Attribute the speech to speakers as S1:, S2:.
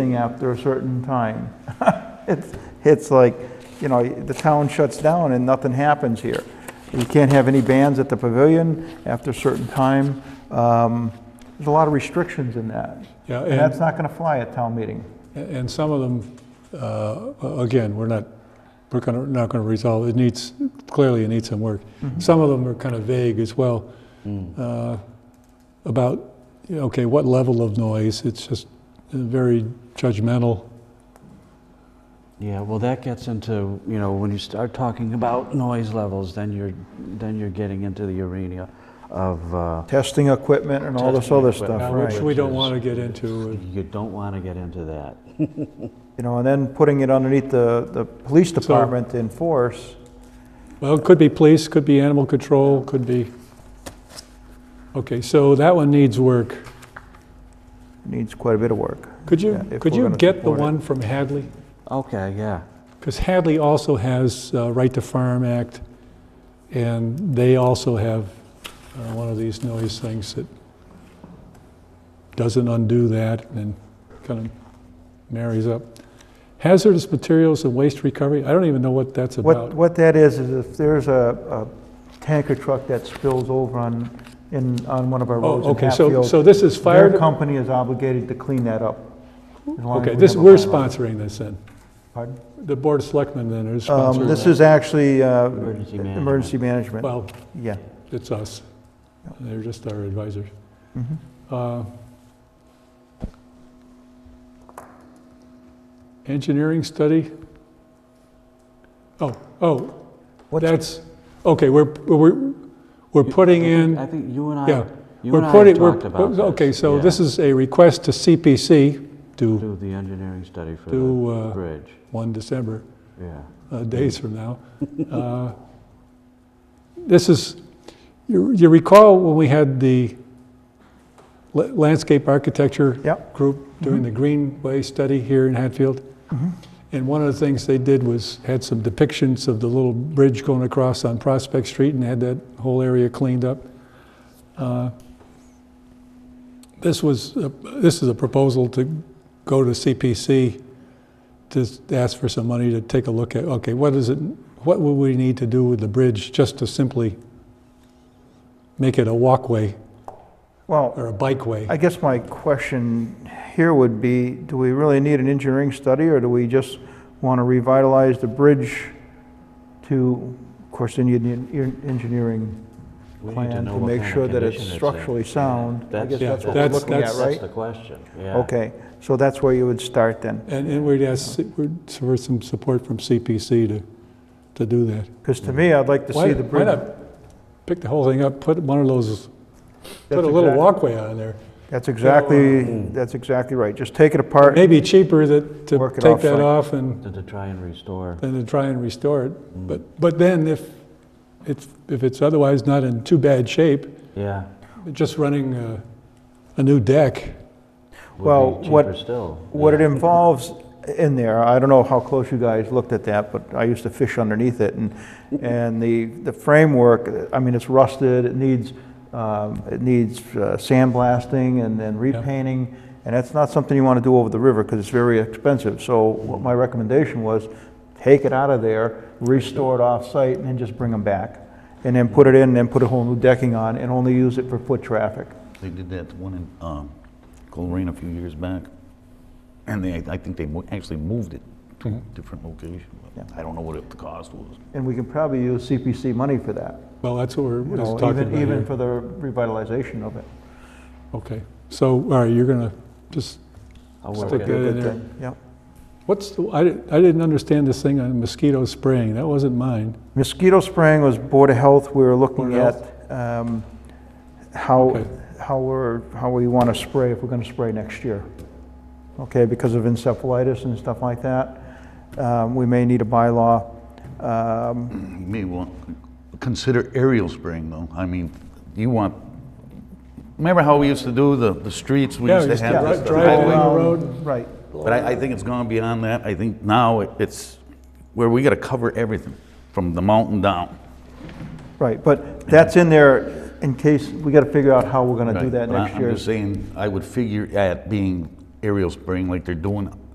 S1: thing after a certain time. It's, it's like, you know, the town shuts down and nothing happens here. You can't have any bands at the pavilion after a certain time. Um, There's a lot of restrictions in that.
S2: Yeah,
S1: And that's
S2: and,
S1: not going to fly at town meeting.
S2: and some of them, uh, again, we're not, we're gonna, not gonna resolve, it needs, clearly it needs some work.
S1: Mm-hmm.
S2: Some of them are kind of vague as well,
S1: Mm.
S2: uh, about, you know, okay, what level of noise, it's just very judgmental.
S3: Yeah, well, that gets into, you know, when you start talking about noise levels, then you're, then you're getting into the arena of, uh,
S1: Testing equipment and all this
S3: Testing
S1: other
S3: equipment.
S1: stuff,
S2: Now, Which
S1: right?
S2: we don't
S3: Right.
S2: want to get into.
S3: you don't want to get into that.
S1: You know, and then putting it underneath the, the police department to enforce.
S2: Well, it could be police, could be animal control, could be, okay, so that one needs work.
S1: needs quite a bit of work.
S2: Could
S1: Yeah,
S2: you,
S1: if
S2: could
S1: we're
S2: you
S1: gonna
S2: get the
S1: support it.
S2: one from Hadley?
S3: Okay, yeah.
S2: Because Hadley also has uh, Right to Farm Act, and they also have uh, one of these noise things that doesn't undo that and kind of marries up. Hazardous materials and waste recovery, I don't even know what that's
S1: What,
S2: about.
S1: what that is, is if there's a, a tanker truck that spills over on, in, on one of our roads
S2: Oh,
S1: in
S2: okay, so, so
S1: Hatfield,
S2: this is
S1: their
S2: fire,
S1: company is obligated to clean that up. as long as
S2: okay,
S1: we
S2: this,
S1: have a
S2: we're
S1: bylaw.
S2: sponsoring this then.
S1: Pardon?
S2: The Board of Selectmen then is
S1: Um,
S2: sponsoring
S1: this
S2: that.
S1: is actually, uh,
S3: Emergency management.
S1: emergency management,
S2: Well,
S1: yeah.
S2: it's us. They're just our advisors.
S1: Mhm.
S2: Uh, Engineering study? Oh, oh,
S1: What's-
S2: that's, okay, we're, we're, we're putting
S3: I
S2: in,
S3: think you and I,
S2: yeah.
S3: you
S2: we're
S3: and I have
S2: putting- we're-
S3: talked about this.
S2: Okay, so
S3: yeah.
S2: this is a request to CPC, due
S3: Do the engineering study for the
S2: due uh,
S3: bridge,
S2: 1 December,
S3: yeah.
S2: uh, days from now. Uh, This is, you you recall when we had the la- landscape architecture
S1: Yep.
S2: group doing the Greenway study here in Hatfield? And one of the things they did was had some depictions of the little bridge going across on Prospect Street and had that whole area cleaned up. Uh, This was, a- this is a proposal to go to CPC to s- ask for some money to take a look at, okay, what is it, what would we need to do with the bridge just to simply make it a walkway
S1: Well,
S2: or a bikeway?
S1: I guess my question here would be, do we really need an engineering study, or do we just want to revitalize the bridge to, of course, then you'd need en- engineering
S3: We need
S1: plan
S3: know
S1: to
S3: what
S1: make
S3: kind of
S1: sure that it's
S3: condition in.
S1: structurally
S3: Yeah,
S1: sound. I guess that's what we're
S2: that's-
S1: looking at,
S2: that's-
S1: right?
S3: the question, yeah.
S1: Okay, so that's where you would start then,
S2: And, and we'd ask we'd- for some support from CPC to, to do that.
S1: because to me, I'd like to
S2: Why
S1: see the
S2: why
S1: bridge.
S2: not pick the whole thing up, put one of those, put a
S1: That's
S2: little
S1: exact-
S2: walkway on there?
S1: That's exactly, that's exactly right, just take it apart,
S2: Maybe cheaper that, to
S1: Work it
S2: take that
S1: offsite.
S2: off and,
S3: To to try and restore,
S2: than to try and restore
S1: Mm.
S2: it. But, but then if, if, if it's otherwise not in too bad shape,
S3: yeah.
S2: just running a, a new deck,
S3: would
S1: Well,
S3: be
S1: what-
S3: Cheaper still.
S1: What it
S3: yeah.
S1: involves in there, I don't know how close you guys looked at that, but I used to fish underneath it, and, and the, the framework, I mean, it's rusted, it needs, um, it needs uh, sandblasting and then repainting, and that's not something you want to do over the river, because it's very expensive, so what my recommendation was, take it out of there, restore it off-site, and then just bring them back, and then put it in, and then put a whole new decking on, and only use it for foot traffic.
S4: They did that to one in um, Coleraine a few years back, and they, I think they mo- actually moved it to a different location. but I don't know what it- the cost was.
S1: And we can probably use CPC money for that.
S2: well, that's what we're
S1: you
S2: just
S1: know,
S2: talking
S1: even,
S2: about
S1: even
S2: here.
S1: for the revitalization of it.
S2: Okay, so, all right, you're gonna just
S3: I'll work
S2: Stick
S3: it.
S2: that in
S1: Good
S2: there.
S1: thing, Yep.
S2: What's, the- I didn't, I didn't understand this thing on mosquito spraying, that wasn't mine.
S1: Mosquito spraying was Board of Health, we were looking
S2: Board of
S1: at um, how,
S2: Okay.
S1: how we're, how we want to spray, if we're going to spray next year. Okay, because of encephalitis and stuff like that, um, we may need a bylaw. Um,
S4: You may want, consider aerial spraying though. I mean, you want, remember how we used to do the, the streets? We
S2: Yeah,
S4: used
S2: we
S4: to
S2: used to
S4: have
S2: dri-
S4: the- the
S2: drive
S4: highway?
S2: down.
S1: um,
S2: road.
S1: Right,
S4: But I, I think it's gone beyond that. I think now it- it's where we gotta cover everything, from the mountain down.
S1: right, but that's in there in case, we got to figure out how we're going to do
S4: Right,
S1: that
S4: but I-
S1: next
S4: I'm
S1: year.
S4: just saying, I would figure at being aerial spraying like they're doing